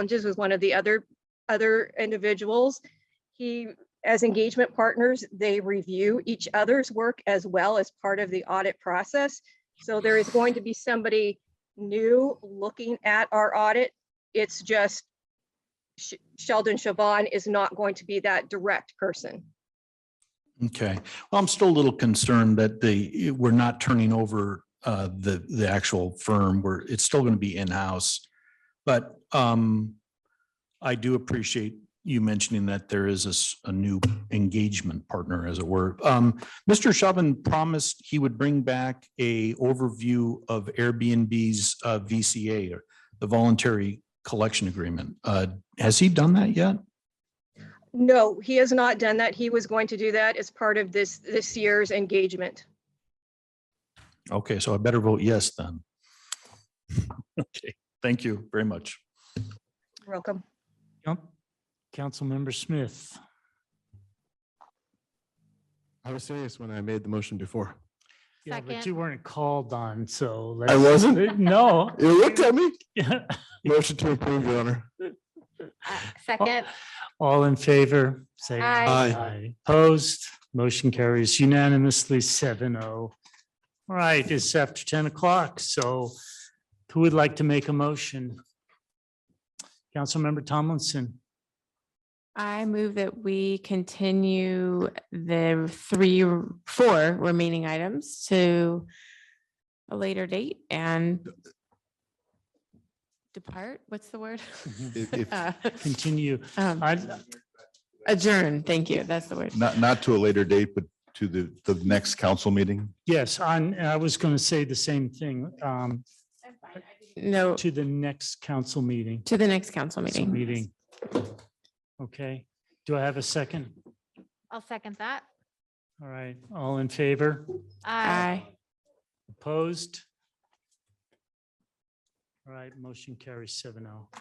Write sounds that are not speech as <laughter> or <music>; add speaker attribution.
Speaker 1: challenges with one of the other, other individuals. He, as engagement partners, they review each other's work as well as part of the audit process. So there is going to be somebody new looking at our audit. It's just Sh- Sheldon Chavon is not going to be that direct person.
Speaker 2: Okay, well, I'm still a little concerned that the, we're not turning over uh, the, the actual firm, where it's still going to be in-house. But um, I do appreciate you mentioning that there is a, s- a new engagement partner, as it were. Um, Mr. Chauvin promised he would bring back a overview of Airbnb's uh, VCA, or the voluntary collection agreement. Uh, Has he done that yet?
Speaker 1: No, he has not done that. He was going to do that as part of this, this year's engagement.
Speaker 2: Okay, so I better vote yes then. <laughs> Okay, thank you very much.
Speaker 1: Welcome.
Speaker 3: Yep. Councilmember Smith.
Speaker 4: I was serious when I made the motion before.
Speaker 3: Yeah, but
Speaker 5: Second.
Speaker 3: you weren't called on, so.
Speaker 4: I
Speaker 3: let's- <laughs>
Speaker 4: wasn't?
Speaker 3: No.
Speaker 4: You looked at me.
Speaker 3: Yeah.
Speaker 4: Motion to approve, Your Honor.
Speaker 5: Uh, Second,
Speaker 3: All in favor, say aye.
Speaker 5: Aye.
Speaker 3: Opposed, motion carries unanimously seven oh. All right, it's after ten o'clock, so who would like to make a motion? Councilmember Tomlinson,
Speaker 6: I move that we continue the three, four remaining items to a later date and depart, what's the word?
Speaker 4: If- if-
Speaker 6: <laughs> Uh,
Speaker 3: continue.
Speaker 6: um,
Speaker 3: I,
Speaker 6: Adjourn, thank you, that's the word.
Speaker 7: Not, not to a later date, but to the, the next council meeting?
Speaker 3: yes, I'm- I was going to say the same thing, um,
Speaker 6: No,
Speaker 3: to the next council meeting.
Speaker 6: to the next council meeting.
Speaker 3: Meeting. Okay, do I have a second?
Speaker 5: I'll second that.
Speaker 3: All right, all in favor?
Speaker 5: Aye.
Speaker 6: Aye.
Speaker 3: Opposed? All right, motion carries seven oh.